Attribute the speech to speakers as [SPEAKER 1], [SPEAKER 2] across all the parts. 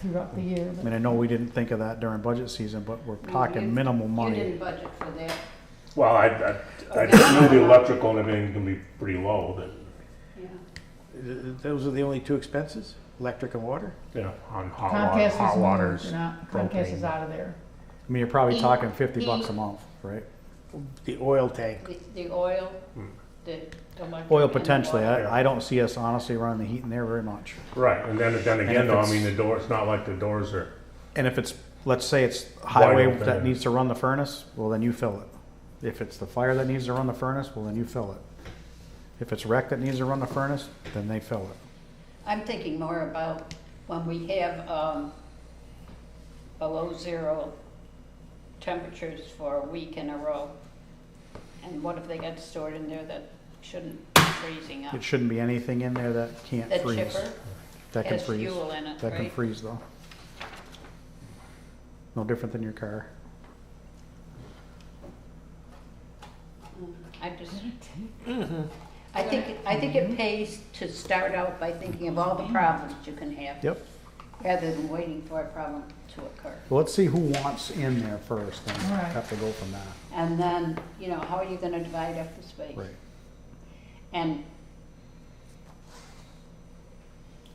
[SPEAKER 1] throughout the year.
[SPEAKER 2] I
[SPEAKER 1] but-
[SPEAKER 2] mean, I know we didn't think of that during budget season, but we're talking minimal
[SPEAKER 3] You
[SPEAKER 2] money.
[SPEAKER 3] didn't budget for that.
[SPEAKER 4] Well, I, I, I just knew the electrical and everything's gonna be pretty low, but,
[SPEAKER 3] Yeah.
[SPEAKER 5] Th- Those are the only two expenses, electric and water?
[SPEAKER 4] you know, on hot water,
[SPEAKER 1] Comcast is
[SPEAKER 4] hot
[SPEAKER 1] moved,
[SPEAKER 4] waters.
[SPEAKER 1] and out- Comcast is
[SPEAKER 4] propane.
[SPEAKER 1] out of there.
[SPEAKER 2] I mean, you're probably
[SPEAKER 3] E-
[SPEAKER 2] talking fifty bucks a
[SPEAKER 3] E-
[SPEAKER 2] month, right?
[SPEAKER 5] The oil tank.
[SPEAKER 3] The, the oil, the electric.
[SPEAKER 2] Oil
[SPEAKER 3] and the
[SPEAKER 2] potentially,
[SPEAKER 3] water.
[SPEAKER 2] I, I don't see us honestly running the heat in there very much.
[SPEAKER 4] Right, and then, then
[SPEAKER 2] if
[SPEAKER 4] again, though, I
[SPEAKER 2] it's-
[SPEAKER 4] mean, the door, it's not like the doors are,
[SPEAKER 2] And if it's, let's say it's highway
[SPEAKER 4] open.
[SPEAKER 2] that needs to run the furnace, well, then you fill it. If it's the fire that needs to run the furnace, well, then you fill it. If it's rec that needs to run the furnace, then they fill it.
[SPEAKER 3] I'm thinking more about when we have, um, below zero temperatures for a week in a row. And what if they got stored in there that shouldn't be freezing up?
[SPEAKER 2] It shouldn't be anything in there that can't
[SPEAKER 3] The
[SPEAKER 2] freeze.
[SPEAKER 3] chipper
[SPEAKER 2] That can
[SPEAKER 3] has
[SPEAKER 2] freeze.
[SPEAKER 3] fuel in it,
[SPEAKER 2] That can
[SPEAKER 3] right?
[SPEAKER 2] freeze though. No different than your car.
[SPEAKER 3] I just, I think, I think it pays to start out by thinking of all the problems you can have.
[SPEAKER 2] Yep.
[SPEAKER 3] Rather than waiting for a problem to occur.
[SPEAKER 2] Well, let's see who wants in there first, then
[SPEAKER 1] All right.
[SPEAKER 2] have to go from there.
[SPEAKER 3] And then, you know, how are you gonna divide up the space?
[SPEAKER 2] Right.
[SPEAKER 3] And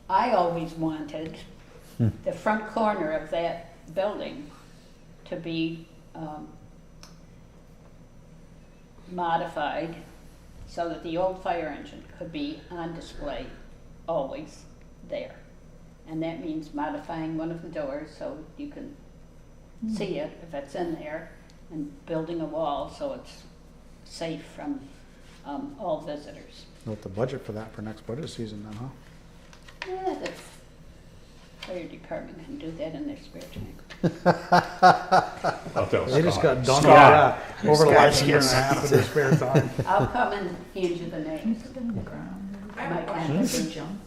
[SPEAKER 3] I always wanted the front corner of that building to be um, modified so that the old fire engine could be on display always there. And that means modifying one of the doors so you can see it if it's in there and building a wall so it's safe from um, all visitors.
[SPEAKER 2] With the budget for that for next budget season then, huh?
[SPEAKER 3] Yeah, the f- fire department can do that in their spare time.
[SPEAKER 4] I'll tell
[SPEAKER 2] They just got
[SPEAKER 4] Scott.
[SPEAKER 2] done with
[SPEAKER 4] Scott.
[SPEAKER 2] that over the last
[SPEAKER 5] Scott,
[SPEAKER 2] year and a
[SPEAKER 5] yes.
[SPEAKER 2] half of their spare time.
[SPEAKER 3] I'll come and hand you the names.
[SPEAKER 1] Put them in the ground.
[SPEAKER 3] I might not be John,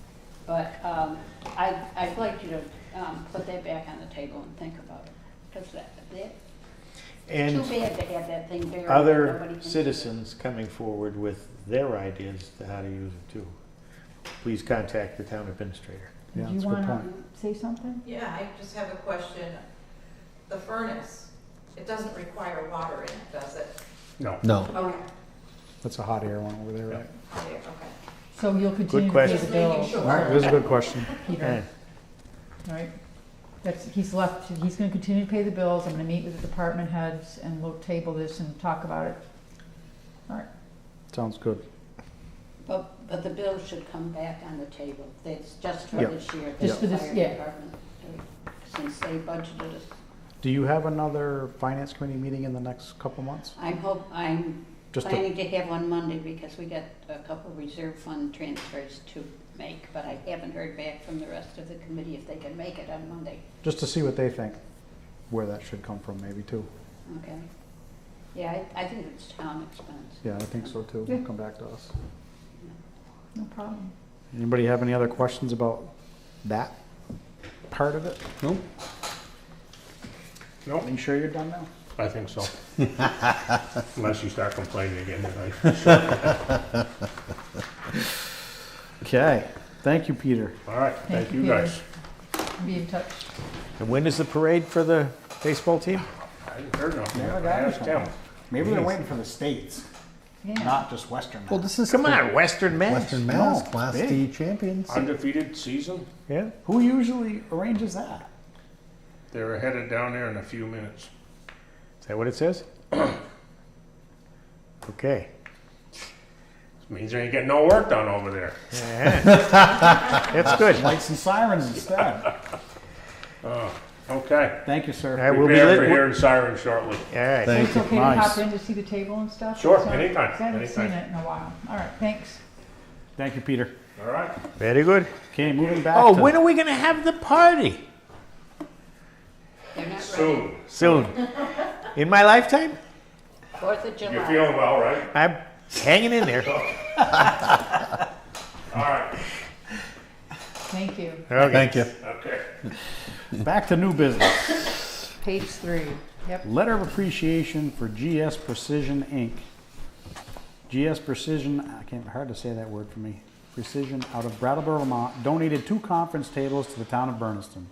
[SPEAKER 3] but um, I, I'd like you to um, put that back on the table and think about it. Because that, that, too
[SPEAKER 5] And
[SPEAKER 3] bad to have that thing buried. and nobody can
[SPEAKER 5] other
[SPEAKER 3] use it.
[SPEAKER 5] citizens coming forward with their ideas to how to use it too. Please contact the town administrator.
[SPEAKER 2] Yeah,
[SPEAKER 1] Do you
[SPEAKER 2] that's a good
[SPEAKER 1] wanna
[SPEAKER 3] Mm-hmm.
[SPEAKER 2] point.
[SPEAKER 1] say something?
[SPEAKER 6] Yeah, I just have a question. The furnace, it doesn't require water in it, does it?
[SPEAKER 4] No,
[SPEAKER 7] No.
[SPEAKER 6] Okay,
[SPEAKER 2] That's a hot air one over there, right?
[SPEAKER 6] there, okay.
[SPEAKER 1] So you'll continue to pay the
[SPEAKER 5] question.
[SPEAKER 1] bill,
[SPEAKER 6] Just making
[SPEAKER 2] All right, this is a
[SPEAKER 6] sure.
[SPEAKER 2] good question.
[SPEAKER 1] Peter, right? That's, he's left, he's gonna continue to pay the bills, I'm gonna meet with the department heads, and we'll table this and talk about it. All right,
[SPEAKER 2] Sounds good.
[SPEAKER 3] But, but the bill should come back on the table. That's just for
[SPEAKER 2] Yeah.
[SPEAKER 3] this year, the
[SPEAKER 1] Just for this-
[SPEAKER 3] fire
[SPEAKER 1] yeah.
[SPEAKER 3] department. Since they budgeted us.
[SPEAKER 2] Do you have another finance committee meeting in the next couple months?
[SPEAKER 3] I hope, I'm
[SPEAKER 2] Just a-
[SPEAKER 3] planning to have one Monday because we got a couple reserve fund transfers to make, but I haven't heard back from the rest of the committee if they can make it on Monday,
[SPEAKER 2] Just to see what they think, where that should come from maybe too.
[SPEAKER 3] okay? Yeah, I, I think it's town expense.
[SPEAKER 2] Yeah, I think so too.
[SPEAKER 1] Yeah.
[SPEAKER 2] Come back to us.
[SPEAKER 1] no problem.
[SPEAKER 2] Anybody have any other questions about that part of it? No.
[SPEAKER 4] no,
[SPEAKER 2] You sure you're done now?
[SPEAKER 4] I think so. Unless you start complaining again tonight.
[SPEAKER 2] Okay, thank you, Peter.
[SPEAKER 4] All right,
[SPEAKER 1] Thank
[SPEAKER 4] thank
[SPEAKER 1] you,
[SPEAKER 4] you
[SPEAKER 1] Peter.
[SPEAKER 4] guys.
[SPEAKER 1] Be in touch.
[SPEAKER 5] And when is the parade for the baseball team?
[SPEAKER 4] I haven't heard nothing.
[SPEAKER 2] Yeah,
[SPEAKER 4] I
[SPEAKER 2] I got
[SPEAKER 4] asked
[SPEAKER 2] you.
[SPEAKER 4] him.
[SPEAKER 2] Maybe they're waiting for the states,
[SPEAKER 1] Yeah,
[SPEAKER 2] not just Western.
[SPEAKER 7] Well, this is
[SPEAKER 5] Come
[SPEAKER 7] the
[SPEAKER 5] on, Western Mass. Oh,
[SPEAKER 7] Western Mass
[SPEAKER 2] No,
[SPEAKER 7] Class
[SPEAKER 2] big.
[SPEAKER 7] D champions.
[SPEAKER 4] Undefeated season,
[SPEAKER 5] Yeah,
[SPEAKER 2] Who usually arranges that?
[SPEAKER 4] they're headed down there in a few minutes.
[SPEAKER 5] is that what it says? Okay.
[SPEAKER 4] This means they ain't getting no work done over there.
[SPEAKER 5] That's good.
[SPEAKER 2] Lights and sirens instead.
[SPEAKER 4] Okay.
[SPEAKER 2] Thank you, sir.
[SPEAKER 5] I will be
[SPEAKER 4] Prepare for
[SPEAKER 5] lit.
[SPEAKER 4] hearing sirens shortly.
[SPEAKER 5] All
[SPEAKER 1] so
[SPEAKER 5] right.
[SPEAKER 7] Thank
[SPEAKER 1] it's okay to
[SPEAKER 2] Nice.
[SPEAKER 1] hop in to see the table and stuff?
[SPEAKER 4] Sure,
[SPEAKER 1] So-
[SPEAKER 4] anytime,
[SPEAKER 1] 'cause I haven't seen
[SPEAKER 4] anytime.
[SPEAKER 1] it in a while, all right, thanks.
[SPEAKER 2] Thank you, Peter.
[SPEAKER 4] All right.
[SPEAKER 5] Very good.
[SPEAKER 2] Okay, moving back
[SPEAKER 5] Oh,
[SPEAKER 2] to-
[SPEAKER 5] when are we going to have the party?
[SPEAKER 3] They're not ready.
[SPEAKER 4] Soon.
[SPEAKER 5] Soon. In my lifetime?
[SPEAKER 3] Fourth of
[SPEAKER 4] You're
[SPEAKER 3] July.
[SPEAKER 4] feeling well, right?
[SPEAKER 5] I'm hanging in there.
[SPEAKER 4] All right.
[SPEAKER 1] Thank you.
[SPEAKER 5] Okay.
[SPEAKER 7] Thank you.
[SPEAKER 4] Okay.
[SPEAKER 2] back to new business.
[SPEAKER 1] Page three, yep.
[SPEAKER 2] Letter of appreciation for GS Precision Inc. GS Precision, I can't, hard to say that word for me. Precision out of Brattleboro, Vermont, donated two conference tables to the town of Berniston.